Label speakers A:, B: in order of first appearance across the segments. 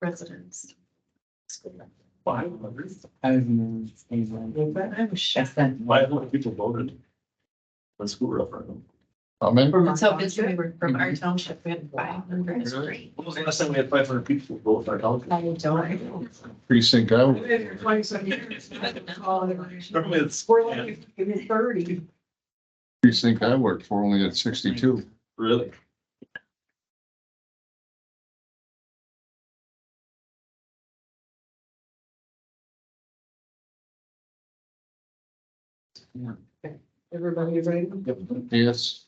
A: residents.
B: Five hundred,
C: I've moved England.
A: I was shocked.
B: five hundred people voted. For school referendum.
D: I mean,
A: And So it's, we were from our township, we had five hundred.
B: Really? When was the last time we had five hundred people vote for our town?
A: I don't.
D: precinct I was,
E: Been here twenty-seven years. I don't recall it.
B: Remember it's-
E: We're like, give me thirty.
D: precinct I worked for only at sixty-two.
B: Really?
E: Everybody ready?
D: Yes,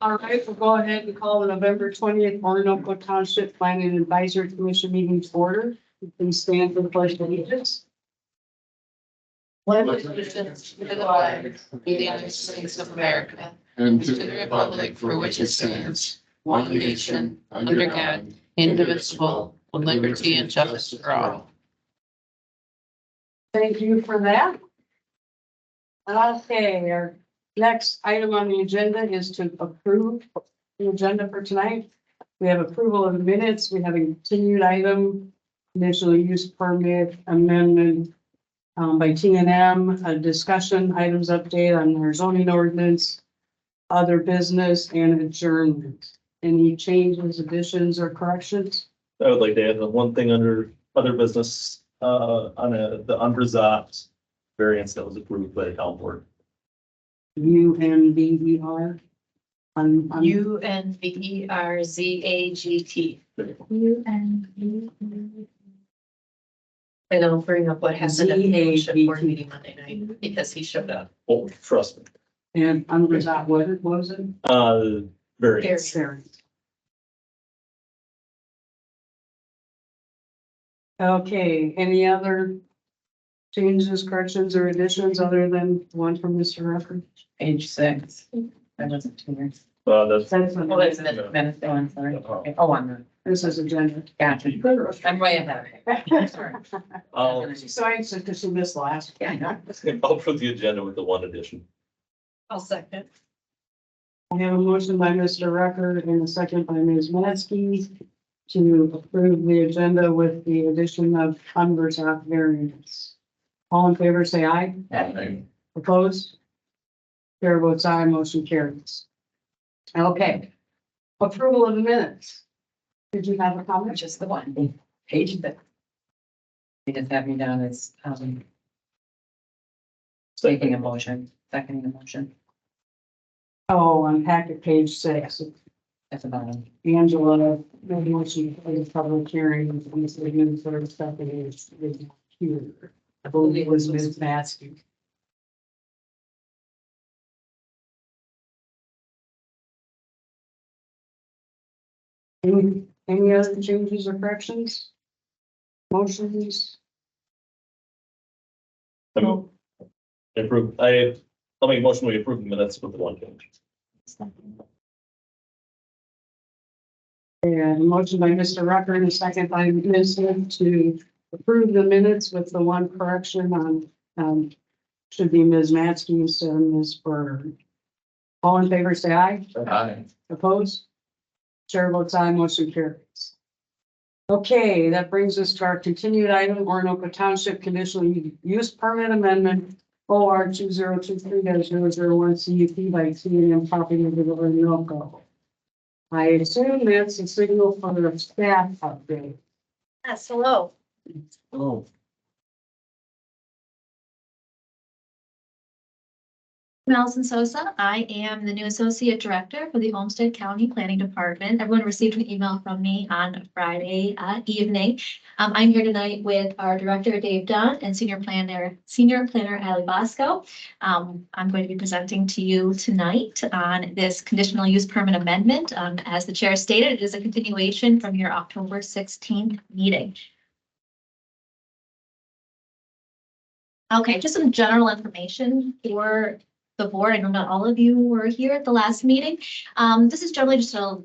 E: All right, we'll go ahead and call the November twentieth Orinoco Township Planning Advisory Commission meeting to order. You can stand for the pledge of allegiance.
A: One of the reasons for the flag of the United States of America,
D: and
A: to the republic for which it stands, one nation, under God, indivisible, with liberty and justice for all.
E: Thank you for that. Okay, our next item on the agenda is to approve the agenda for tonight. We have approval of minutes. We have a continued item, initial use permit amendment um, by T and M, a discussion, items update on our zoning ordinance, other business and adjournment. Any changes, additions or corrections?
B: I would like to add the one thing under other business, uh, on a, the unresolved variance that was approved by the town board.
E: U N B E R? On, on.
A: U N V E R Z A G T. U N V E. And I'll bring up what happened at the township board meeting Monday night, because he showed up.
B: Oh, trust me,
E: And unresolved, what it was it?
B: uh, variance.
A: Variance.
E: Variance. Okay, any other changes, corrections, or additions other than the one from Mr. Rucker?
F: Page six. I wasn't here.
B: Uh, that's.
E: That's
F: Well,
E: what
F: that's minute, minute, oh, I'm sorry. Okay, Oh, I'm, not.
E: this is agenda.
F: gotcha. I'm way ahead of it.
B: I'll,
E: She's so anxious because she missed last.
F: Yeah.
B: I'll put the agenda with the one addition.
A: I'll second.
E: I have a motion by Mr. Rucker and a second by Ms. Mansky to approve the agenda with the addition of unresolved variance. All in favor, say aye. Opposed? Chair votes aye, motion carries. Okay. Approval of the minutes. Did you have a comment?
F: Just the one, page six. They just have me down as, um, making a motion, seconding the motion
E: Oh, on packet page six,
F: at the bottom.
E: Angela, maybe when she plays public hearing, we said administrative stuff is is here. I believe it was Ms. Maskey. Any, any other changes or corrections? Motions?
B: I'm- Approve, I, I'll make a motion, we approve the minutes with the one change.
E: And a motion by Mr. Rucker and a second by Ms. Smith to approve the minutes with the one correction on, um, should be Ms. Matzke instead of Ms. Bernard. All in favor, say aye.
D: Aye.
E: Opposed? Chair votes aye, motion carries. Okay, that brings us to our continued item, Orinoco Township Conditional Use Permit Amendment, OR two zero two three dash zero zero one CUP by T and M Property of Orinoco. I assume that's a signal for the staff update.
G: Ah,
A: Yes, hello.
C: Oh,
G: Nelson Sosa, I am the new Associate Director for the Homestead County Planning Department. Everyone received an email from me on Friday uh, evening. Um, I'm here tonight with our Director Dave Dunn and Senior Planner, Senior Planner Ali Bosco. Um, I'm going to be presenting to you tonight on this conditional use permit amendment. Um, As the Chair stated, it is a continuation from your October sixteenth meeting. Okay, just some general information for the board. I know not all of you were here at the last meeting. Um, this is generally just a